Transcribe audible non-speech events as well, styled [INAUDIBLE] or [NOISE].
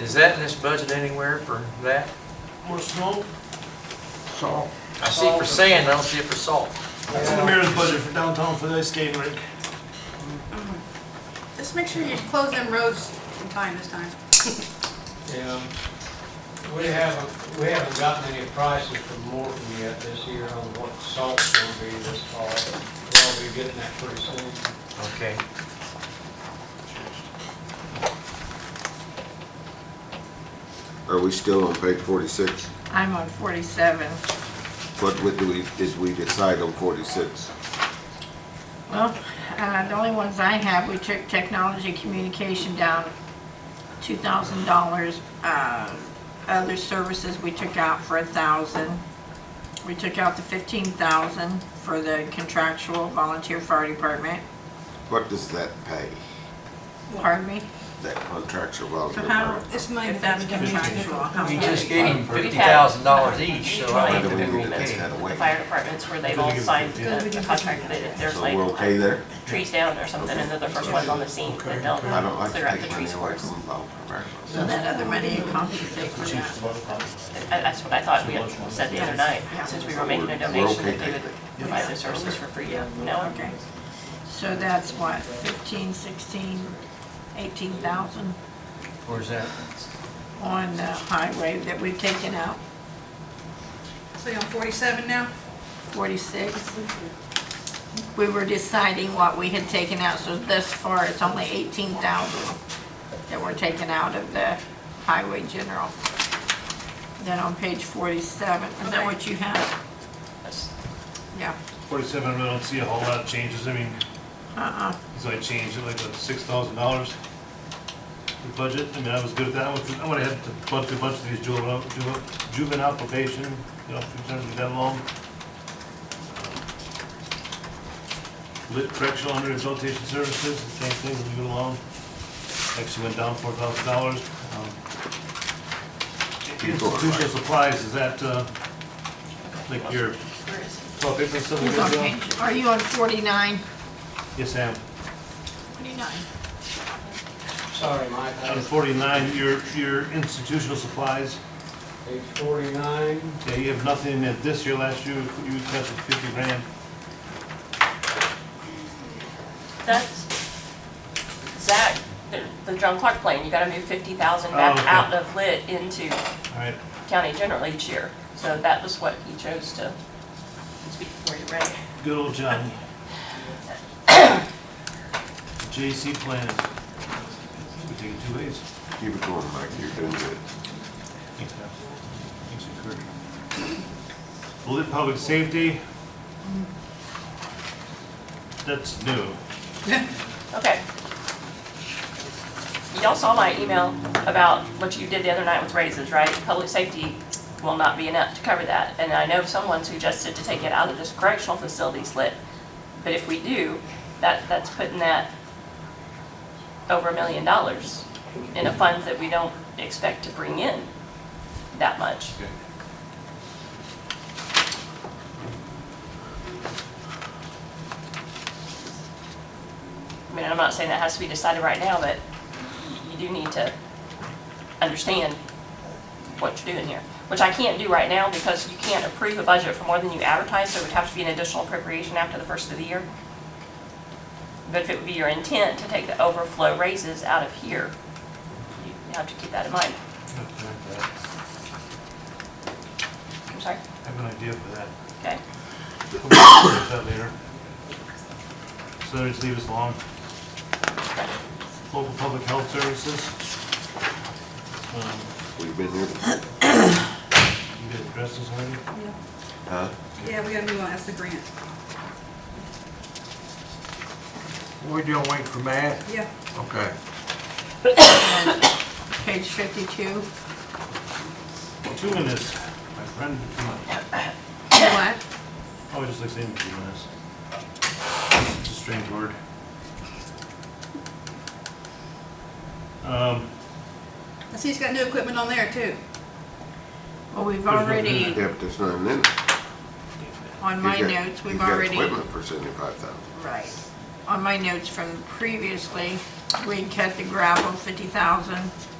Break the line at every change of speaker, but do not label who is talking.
Is that in this budget anywhere for that?
More snow?
So,
I see for sand, I don't see it for salt.
That's in the mayor's budget for downtown for the ice skating rink.
Just make sure you close them roads in time this time.
Yeah, we haven't, we haven't gotten any prices from Morton yet this year on what salt's gonna be this fall. We'll be getting that pretty soon.
Okay.
Are we still on page forty-six?
I'm on 47.
What would we, did we decide on forty-six?
Well, uh, the only ones I have, we took technology communication down $2,000. Uh, Other services we took out for 1,000. We took out the 15,000 for the contractual volunteer fire department.
What does that pay,
Pardon me?
that contractual volunteer?
So how-
part?
This money.
If that's contractual. how
We
much?
just gave them fifty thousand dollars each, so I
Why
think
do we
they're
need
gonna
to take that
pay.
away?
the fire departments where they've all signed the the contract that there's
So
like
we're okay there?
trees down or something, and they're the first ones on the scene, but they'll
I don't like to
clear out the
take money
trees for
away
us.
from volunteer fire.
So that other money compensates for that.
I- That's what I thought we had said the other night, since we were making a
We're- we're
donation,
okay
that they would
taking
provide those services for free, no?
Okay. So that's what, 15, 16, 18,000
Where's that?
on the highway that we've taken out?
So you're on forty-seven now?
46. We were deciding what we had taken out, so thus far, it's only 18,000 that were taken out of the highway general. Then on page 47, is that what you have?
That's-
Yeah,
Forty-seven, I really don't see a whole lot of changes, I mean,
uh-uh.
so I changed it like the six thousand dollars. The budget, I mean, I was good with that, one. I went ahead to bump through a bunch of these juvenile, juvenile- juvenile probation, you know, in terms of that long. Uh, Lit correctional and rehabilitation services, the same thing, as we go along, actually went down four thousand dollars. um, Institutional supplies, is that, uh, like your
where is it?
toilet paper and stuff like
It's on
that? Bill?
page- Are you on 49?
Yes, ma'am.
49.
Sorry, Mike, I
On
just,
forty-nine, your, your institutional supplies,
page forty-nine,
yeah, you have nothing in it this year, last year, you cut the fifty grand.
That's, Zach, the- the John Clark plan, you gotta move fifty thousand back
Oh, okay.
out of lit into
All right,
county general each year. So that was what he chose to speak for you, right?
good old Johnny. [COUGHS] JC plans. We take it two ways.
Keep it going, Mike, you're doing good.
Thanks, Kurt. Lit public safety. That's new.
Okay. Y'all saw my email about what you did the other night with raises, right? Public safety will not be enough to cover that. And I know someone suggested to take it out of this correctional facilities lit. But if we do, that, that's putting that over a million dollars in a fund that we don't expect to bring in that much. I mean, I'm not saying that has to be decided right now, but you do need to understand what you're doing here, which I can't do right now because you can't approve a budget for more than you advertise, so it would have to be an additional appropriation after the first of the year. But if it would be your intent to take the overflow raises out of here, you have to keep that in
I
mind. I'm sorry,
have an idea for that.
okay?
We'll discuss that later. So they just leave us alone. Local public health services. Um,
We've been here, before,
You guys addressed this already?
Yeah.
huh?
Yeah, we gotta move on, that's the grant.
we doing waiting for Matt?
Yeah.
Okay.
Page 52.
Two minutes, my friend, two minutes.
What?
Oh, I just like saying two minutes. It's a strange word. Um,
I see he's got new equipment on there too.
Well, we've
There's no-
already,
Yeah, but there's nothing in it.
on my
You got-
notes, we've
you got
already.
Equipment for seventy-five thousand.
Right. On my notes from previously, we cut the gravel fifty thousand,